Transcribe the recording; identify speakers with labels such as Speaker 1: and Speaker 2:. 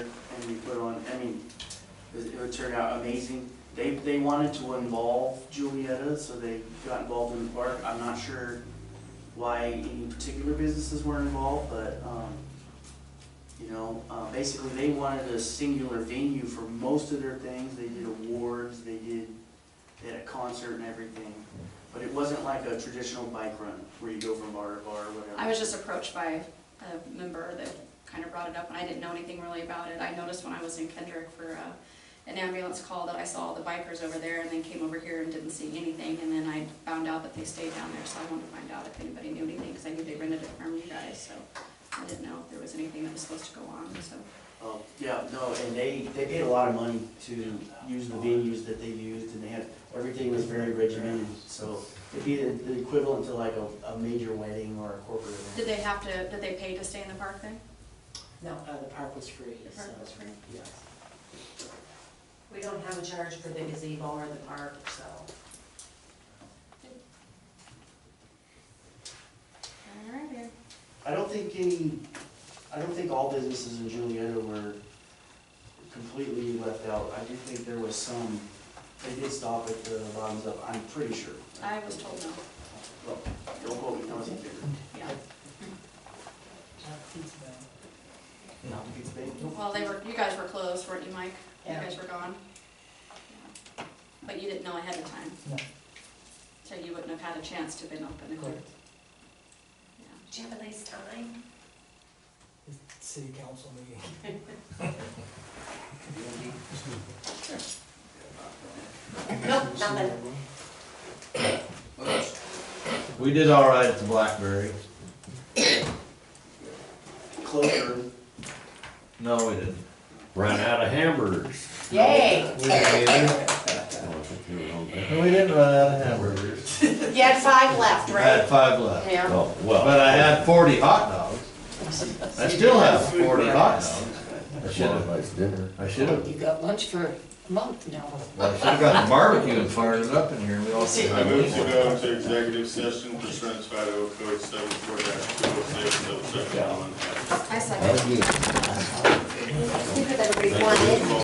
Speaker 1: we put on, I mean, it it would turn out amazing. They, they wanted to involve Julietta, so they got involved in the park. I'm not sure why any particular businesses were involved, but, um, you know, uh, basically they wanted a singular venue for most of their things. They did awards, they did, they had a concert and everything. But it wasn't like a traditional bike run where you go from bar to bar or whatever.
Speaker 2: I was just approached by a member that kind of brought it up, and I didn't know anything really about it. I noticed when I was in Kendrick for uh, an ambulance call that I saw all the bikers over there, and then came over here and didn't see anything, and then I found out that they stayed down there, so I wanted to find out if anybody knew anything, because I knew they rented it from you guys, so I didn't know if there was anything that was supposed to go on, so.
Speaker 1: Oh, yeah, no, and they, they paid a lot of money to use the venues that they used, and they had, everything was very regimented, so it'd be the- the equivalent to like a, a major wedding or a corporate
Speaker 2: Did
Speaker 1: event.
Speaker 2: they have to, did they pay to stay in the park then?
Speaker 3: No, uh, the park was free,
Speaker 2: The
Speaker 3: so.
Speaker 2: park was free?
Speaker 3: Yes.
Speaker 4: We don't have a charge for the gazebo or the park, so.
Speaker 2: All right.
Speaker 1: I don't think any, I don't think all businesses in Julietta were completely left out. I do think there was some, they did stop at the bottoms up, I'm pretty sure.
Speaker 2: I was told no,
Speaker 1: Well, Don't quote me, I wasn't there.
Speaker 2: yeah.
Speaker 1: Not the big thing.
Speaker 2: Well, they were, you guys were closed, weren't you, Mike? You
Speaker 3: Yeah.
Speaker 2: guys were gone? Yeah. But you didn't know ahead of time?
Speaker 5: No.
Speaker 2: So you wouldn't have had a chance to have been open if
Speaker 5: Correct.
Speaker 2: you yeah.
Speaker 4: Did you have a nice time?
Speaker 5: City council meeting.
Speaker 4: Nope, nothing.
Speaker 6: We did all right at the Blackberry.
Speaker 1: Closure,
Speaker 6: No, we didn't.
Speaker 7: Ran out of hamburgers.
Speaker 4: Yay!
Speaker 6: We didn't either.
Speaker 7: Oh, I think they were all bad.
Speaker 6: And we didn't run out of hamburgers.
Speaker 4: You had five left,
Speaker 6: I had
Speaker 4: right?
Speaker 6: five left.
Speaker 4: Yeah.
Speaker 7: Oh, well.
Speaker 6: But I had forty hot dogs. I still have forty hot dogs.
Speaker 7: That's why I liked dinner.
Speaker 6: I should've,
Speaker 3: You got lunch for a month now.
Speaker 6: well, I should've got the barbecue and fired it up in here. We all could
Speaker 8: I
Speaker 6: have
Speaker 8: move to
Speaker 6: one.
Speaker 8: go into executive session pursuant to Idaho Code seven four dash two oh six, double seven one.
Speaker 2: I second.
Speaker 7: How'd you?
Speaker 4: Because everybody wanted.